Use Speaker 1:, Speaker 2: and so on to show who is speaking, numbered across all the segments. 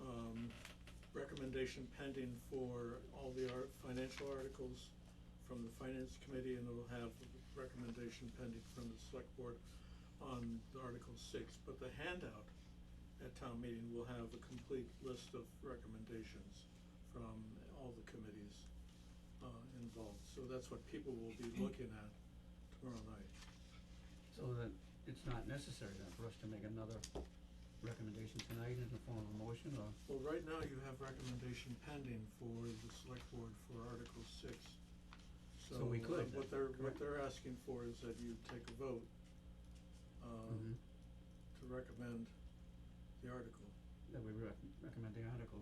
Speaker 1: um, recommendation pending for all the ar- financial articles from the finance committee, and it'll have a recommendation pending from the select board on the Article six, but the handout at town meeting will have a complete list of recommendations from all the committees uh involved, so that's what people will be looking at tomorrow night.
Speaker 2: So that it's not necessary then for us to make another recommendation tonight in the form of a motion or,
Speaker 1: Well, right now you have recommendation pending for the select board for Article six. So
Speaker 2: So we
Speaker 1: uh,
Speaker 2: could,
Speaker 1: what they're, what
Speaker 2: correct.
Speaker 1: they're asking for is that you take a vote um
Speaker 2: Mhm.
Speaker 1: to recommend the article.
Speaker 2: that we rec- recommend the article.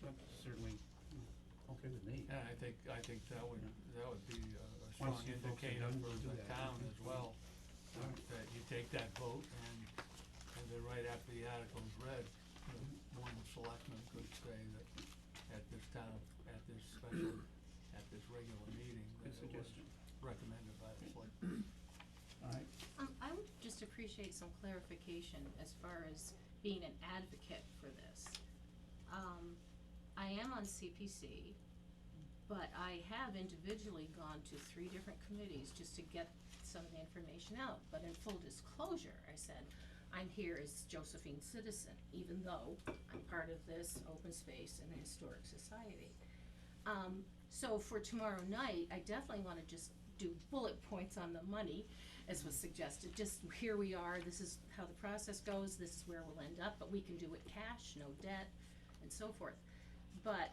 Speaker 2: That's certainly mm, okay with me.
Speaker 3: Yeah, I think, I think that would, that would be a a strong
Speaker 2: Once you folks are
Speaker 3: indicator
Speaker 2: done,
Speaker 3: for
Speaker 2: we'll do
Speaker 3: the
Speaker 2: that.
Speaker 3: town as well, that,
Speaker 2: Alright.
Speaker 3: that you take that vote and, and then right after the article's read, the one selectman could say that at this town, at this special, at this regular meeting, that
Speaker 2: Good
Speaker 3: it was
Speaker 2: suggestion.
Speaker 3: recommended by the select.
Speaker 2: Alright,
Speaker 4: Um, I would just appreciate some clarification as far as being an advocate for this. Um, I am on CPC, but I have individually gone to three different committees just to get some of the information out. But in full disclosure, I said, I'm here as Josephine citizen, even though I'm part of this open space and historic society. Um, so for tomorrow night, I definitely wanna just do bullet points on the money, as was suggested, just here we are, this is how the process goes, this is where we'll end up, but we can do it cash, no debt, and so forth. But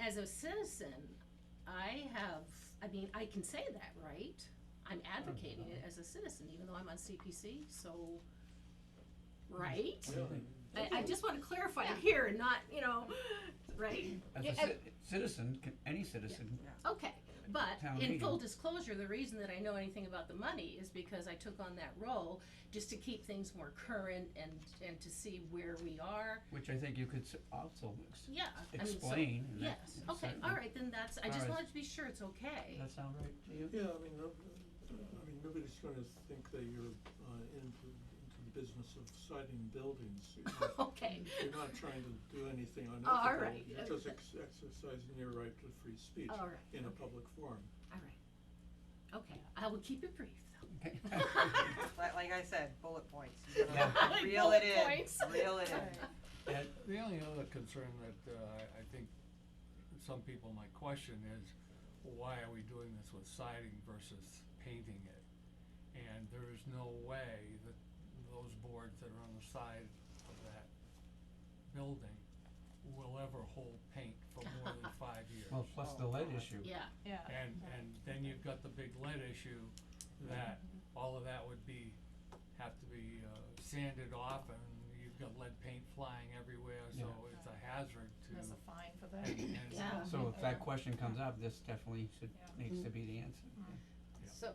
Speaker 4: as a citizen, I have, I mean, I can say that, right? I'm advocating it as a citizen, even though I'm on CPC, so, right?
Speaker 2: Yeah. think-
Speaker 4: I, I just wanna clarify it here and not, you know, right?
Speaker 2: as
Speaker 4: Yeah,
Speaker 2: a ci- citizen, can, any citizen,
Speaker 4: Okay, but
Speaker 2: Town
Speaker 4: in full
Speaker 2: meeting.
Speaker 4: disclosure, the reason that I know anything about the money is because I took on that role just to keep things more current and, and to see where we are.
Speaker 2: which I think you could s- also ex-
Speaker 4: Yeah, I mean, so,
Speaker 2: explain and that-
Speaker 4: yes, okay,
Speaker 2: certainly.
Speaker 4: all right, then that's, I just
Speaker 2: Alright.
Speaker 4: wanted to be sure it's okay.
Speaker 2: Does that sound right to you?
Speaker 1: Yeah, I mean, no, I mean, nobody's gonna think that you're uh into into the business of citing buildings. You're not-
Speaker 4: Okay.
Speaker 1: You're not trying to do anything
Speaker 4: Oh, All
Speaker 1: unethical,
Speaker 4: right.
Speaker 1: you're just ex- exercising your right to free speech
Speaker 4: All right,
Speaker 1: in a
Speaker 4: okay.
Speaker 1: public forum.
Speaker 4: All right, okay, I will keep it brief though.
Speaker 2: Okay.
Speaker 5: Like, like I said, bullet points. You gotta
Speaker 4: Yeah.
Speaker 5: Reel
Speaker 4: Bullet
Speaker 5: it in,
Speaker 4: points.
Speaker 5: reel it in.
Speaker 2: Ed,
Speaker 3: The only other concern that, uh, I, I think some people might question is, why are we doing this with siding versus painting it? And there is no way that those boards that are on the side of that building will ever hold paint for more than five years.
Speaker 2: well, plus the lead issue.
Speaker 4: Yeah,
Speaker 6: Yeah.
Speaker 3: And, and then you've got the big lead issue that all of that would be, have to be uh, sanded off and you've got lead paint flying everywhere, so
Speaker 2: Yeah.
Speaker 3: it's a hazard to.
Speaker 6: There's a fine for
Speaker 3: and-
Speaker 6: that.
Speaker 3: and-
Speaker 4: Yeah.
Speaker 2: So if that question comes up, this definitely should,
Speaker 6: Yeah.
Speaker 2: needs to
Speaker 4: Mm-hmm.
Speaker 2: be the answer.
Speaker 3: Yeah.
Speaker 7: So,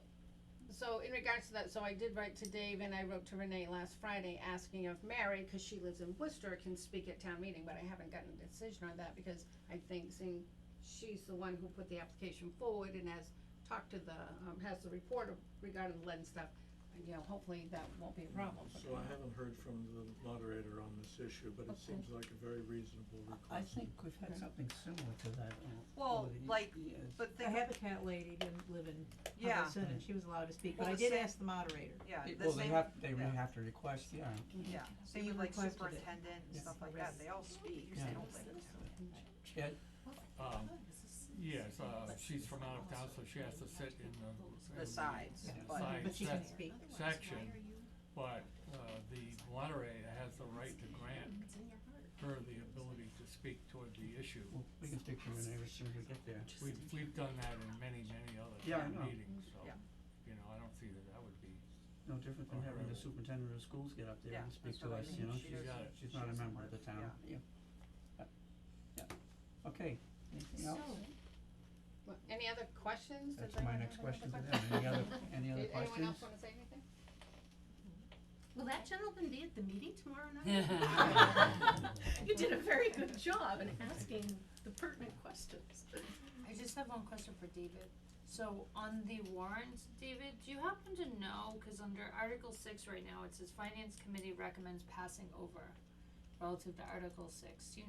Speaker 7: so in regards to that, so I did write to Dave and I wrote to Renee last Friday asking if Mary, cause she lives in Worcester, can speak at town meeting, but I haven't gotten a decision on that because I think seeing she's the one who put the application forward and has talked to the, um, has the report of- regarding the lead and stuff, and, you know, hopefully that won't be a problem. but-
Speaker 1: So I haven't heard from the moderator on this issue, but it
Speaker 7: Okay.
Speaker 1: seems like a very reasonable request.
Speaker 2: I think we've had something similar to that o-
Speaker 5: Well,
Speaker 2: over the years.
Speaker 5: like, But
Speaker 6: The
Speaker 5: think,
Speaker 6: Habitat lady didn't live in
Speaker 5: yeah,
Speaker 6: Hubbardston and she was allowed to speak,
Speaker 5: Well,
Speaker 6: but I
Speaker 5: the
Speaker 6: did
Speaker 5: same-
Speaker 6: ask the moderator.
Speaker 5: yeah,
Speaker 2: It-
Speaker 5: the
Speaker 2: Well, they
Speaker 5: same,
Speaker 2: have, they would
Speaker 5: yeah.
Speaker 2: have to request, yeah,
Speaker 5: yeah,
Speaker 6: They
Speaker 5: same with
Speaker 6: were
Speaker 5: like
Speaker 6: requested it.
Speaker 5: superintendent and
Speaker 2: Yeah.
Speaker 5: stuff like that, they all speak, they
Speaker 2: Yeah.
Speaker 5: don't like.
Speaker 2: Ed,
Speaker 3: Um, Yes, uh, she's from out of town, so she has to sit in the. in
Speaker 5: The sides,
Speaker 3: the
Speaker 5: but-
Speaker 3: side
Speaker 6: But she can
Speaker 3: sec-
Speaker 6: speak.
Speaker 3: Section, but, uh, the moderator has the right to grant her the ability to speak toward the issue.
Speaker 2: well, we can stick to Renee as soon as we get there.
Speaker 3: We've, we've done that in many, many other
Speaker 2: Yeah, I
Speaker 3: town
Speaker 2: know.
Speaker 3: meetings, so,
Speaker 5: Yeah.
Speaker 3: you know, I don't see that that would be,
Speaker 2: No different than having the
Speaker 3: Alright.
Speaker 2: superintendent of schools get up there
Speaker 5: Yeah,
Speaker 2: and speak
Speaker 5: that's
Speaker 2: to
Speaker 5: what I
Speaker 2: us,
Speaker 5: mean.
Speaker 2: you know,
Speaker 5: She
Speaker 2: she's,
Speaker 3: doesn't- Got it.
Speaker 2: she's not a
Speaker 5: she
Speaker 2: member of
Speaker 5: doesn't
Speaker 2: the
Speaker 5: work,
Speaker 2: town, yeah. Yeah. Yeah. Okay, anything else?
Speaker 7: Well, Any other questions? Does
Speaker 2: That's my
Speaker 7: anyone
Speaker 2: next
Speaker 7: have another
Speaker 2: question to them, any other, any other
Speaker 7: Did anyone
Speaker 2: questions?
Speaker 7: else wanna say anything?
Speaker 4: will that gentleman be at the meeting tomorrow night? You did a very good job in asking the pertinent questions.
Speaker 8: I just have one question for David. So on the warrant, David, do you happen to know, cause under Article six right now, it says Finance Committee recommends passing over relative to Article six, do you